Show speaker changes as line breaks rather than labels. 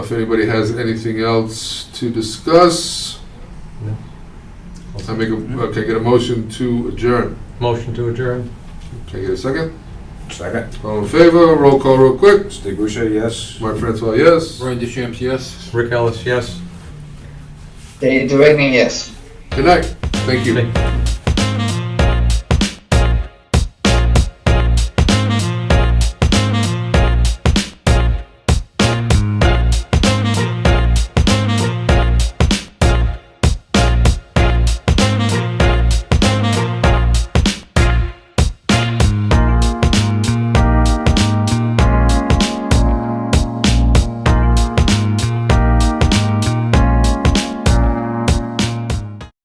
If anybody has anything else to discuss, I make a, uh, can I get a motion to adjourn?
Motion to adjourn?
Can I get a second?
Second.
All in favor, roll call real quick.
Steve Boucher, yes.
Mark Francois, yes.
Brian DeChamps, yes.
Rick Ellis, yes.
Dave Duraney, yes.
Good night. Thank you.
Thank you.